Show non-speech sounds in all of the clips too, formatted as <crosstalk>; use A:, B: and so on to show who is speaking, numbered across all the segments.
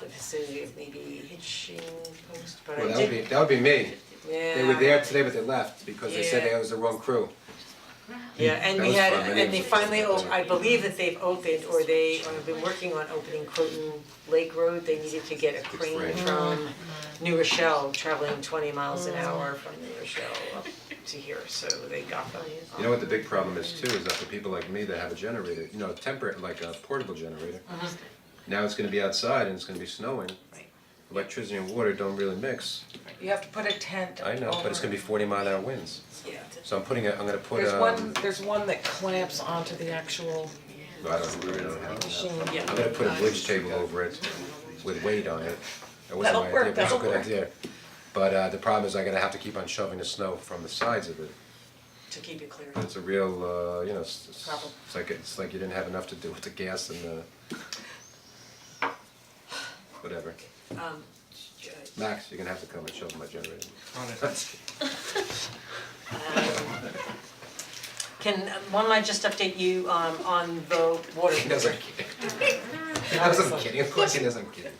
A: vicinity of maybe Hitching Post, but I did.
B: Well, that would be, that would be me.
A: Yeah.
B: They were there today, but they left because they said
A: Yeah.
B: that was the wrong crew.
A: Yeah, and
B: That
A: we
B: was
A: had,
B: fun. My
A: and
B: name
A: they
B: was-
A: finally, op- I believe that they've opened, or they have been working on opening Croton Lake Road, they needed to get a crane
B: Right.
A: from
C: Mm-hmm.
A: New Rochelle, traveling twenty miles
C: Mm.
A: an hour from New Rochelle up to here, so they got them.
B: You know what the big problem is too, is that for people like me that have a generator, you know, a temper, like a portable generator.
C: Uh-huh.
B: Now it's gonna be outside and it's gonna be snowing. Electricity and water don't really mix.
C: You have to put a tent
B: I know, but it's gonna be forty mile an hour winds.
A: Yeah.
B: So I'm putting a, I'm gonna put
C: There's
B: um,
C: one, there's one that clamps onto the actual
B: I don't, I don't have that.
C: machine.
A: Yeah.
B: I'm gonna put a bridge table over it with weight on it. That wasn't
C: That'll
B: my
C: work,
B: idea, but it's a
C: that'll
B: good
C: work.
B: idea. But uh the problem is I'm gonna have to keep on shoving the snow from the sides of it.
A: To keep it clear.
B: It's a real, uh, you know, it's, it's-
A: Problem.
B: it's like, it's like you didn't have enough to do with the gas and the. Whatever.
A: Um,
C: uh,
B: Max, you're gonna have to come and show them my generator. <laughs>
A: Can, one might just update you um on the water.
B: He knows I'm kidding. <laughs> He knows I'm kidding, of course he knows I'm kidding.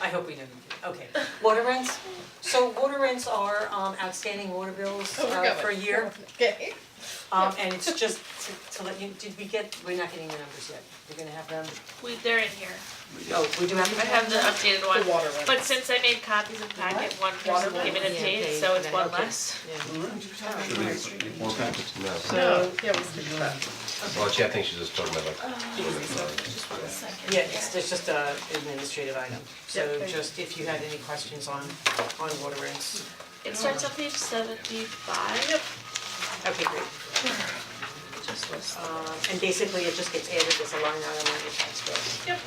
A: I hope we know you do, okay. Water rents, so water rents are um outstanding water bills
D: Oh,
A: uh, for a year.
E: Oh, Okay.
A: Um, and it's just to, to let you, did we get, we're not getting the numbers yet, we're gonna have them,
D: We, they're in here.
A: oh, we do have them.
D: I have the updated one.
C: The water one.
D: But since I made copies of packet one, person
C: one?
D: given a
A: Yeah,
D: date,
A: okay,
D: so it's
A: okay,
D: one
A: okay.
D: less.
B: More packets
E: No, yeah, we can do that.
B: Well, she, I think she's just talking about like.
A: Yeah, it's, it's just a administrative item, so
E: Yeah.
A: just if you had any questions on, on water rents,
D: It starts on page seventy-five.
A: okay, great.
D: Just list.
A: Um, and basically it just gets added as a line item on your tax bill,
E: Yep,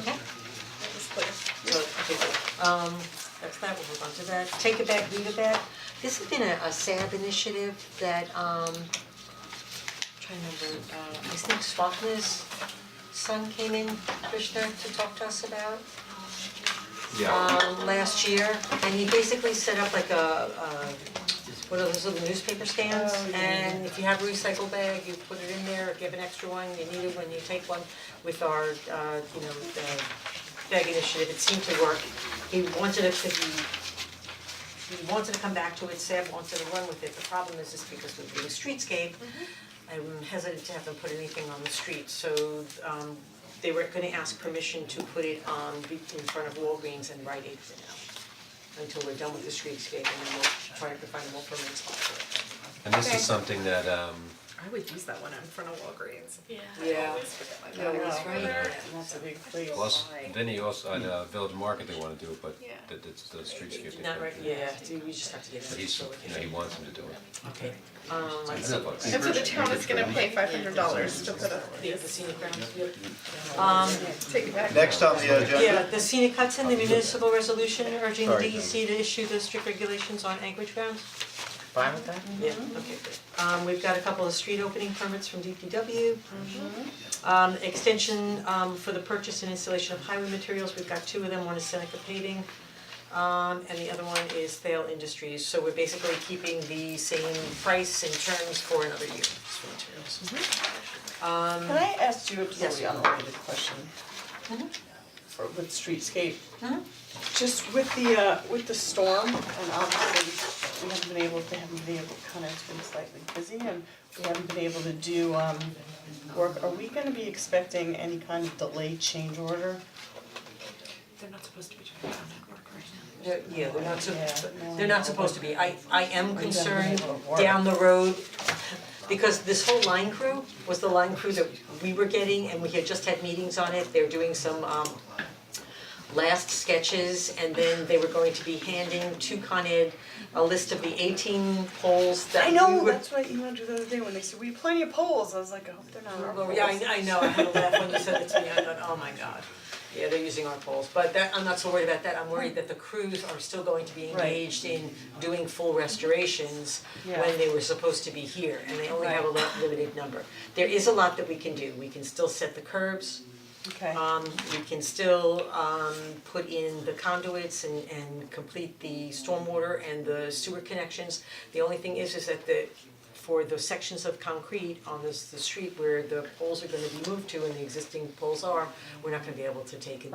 A: okay?
E: that was clear.
A: So, okay, good. Um, that's that, we'll move on to that. Take it back, leave it back. This has been a, a SAB initiative that, um, trying to remember, uh, I think Swapna's son came in, Krishna, to talk to us about
B: Yeah,
A: um last year, and he basically set up like a uh what are those little newspaper stands? And if you have a recycle bag, you put it in there, if you have an extra one, you need it when you take one with our uh you know, the bag initiative, it seemed to work. He wanted it to be we wanted to come back to it, Sam wanted to run with it, the problem is is because we're doing streetscape. I'm hesitant to have them put anything on the street, so um they were gonna ask permission to put it on be- in front of Walgreens and Rite Aid for now. Until we're done with the streetscape and then we'll try to find a more permanent spot for it.
B: and this is something that, um,
E: I would use that one in front of Walgreens.
D: Yeah.
A: Yeah.
E: forget my
A: Yeah, that's right.
E: That's a big place.
B: plus, Vinny also, at uh, Village Market, they wanna do it, but
D: Yeah.
B: the, the, the streetscape. they
A: Not
B: can't
A: right,
B: do it.
A: yeah, dude, we just have to get
B: But
A: it,
B: he's,
A: so
B: you know, he wants him to do it.
A: okay. Um let's see.
B: It's
E: And so the town is gonna pay five hundred dollars to put up
A: The the
E: these,
A: scenic grounds, yep. Um
E: take it back.
F: Next on the agenda.
A: Yeah, the scenic cuts in the municipal resolution urging the
B: Sorry,
A: DEC to issue the strict regulations on anchorage grounds.
C: Fine with that?
A: Yeah, okay, good. Um, we've got a couple of street opening permits from DPW. Um, extension, um, for the purchase and installation of highway materials, we've got two of them, one is Seneca paving. Um, and the other one is Thale Industries, so we're basically keeping the same price and terms for another year, for materials.
C: Can I ask you a
A: Yes.
C: totally unrelated question? Mm-hmm. For, with streetscape? Just with the, uh, with the storm, and obviously, we haven't been able, they haven't been able, kind of been slightly busy, and we haven't been able to do, um, work, are we gonna be expecting any kind of delayed change order?
D: They're not supposed to be trying to network right now.
A: They're, yeah, they're not, sup-
C: Yeah, no.
A: they're not supposed to be, I, I am
C: We've never been
A: concerned
C: able to work.
A: down the road, because this whole line crew was the line crew that we were getting, and we had just had meetings on it, they're doing some, um, last sketches, and then they were going to be handing to Con Ed a list of the eighteen poles that
C: I
A: we
C: know,
A: were-
C: that's what I emailed you the other day when they said, we have plenty of polls, I was like, I hope they're not our
A: Oh,
C: polls.
A: yeah, I, I know, I had a laugh when you said it to me, I thought, oh my god, yeah, they're using our polls, but that, I'm not so worried about that, I'm worried that the crews are still going to be
C: Right.
A: engaged in doing full restorations
C: Yeah.
A: when they were supposed to be here, and they only have a lot, limited number. There is a lot that we can do, we can still set the curbs,
C: Okay.
A: um, we can still, um, put in the conduits and, and complete the stormwater and the sewer connections. The only thing is, is that the, for the sections of concrete on this, the street where the poles are gonna be moved to and the existing poles are, we're not gonna be able to take and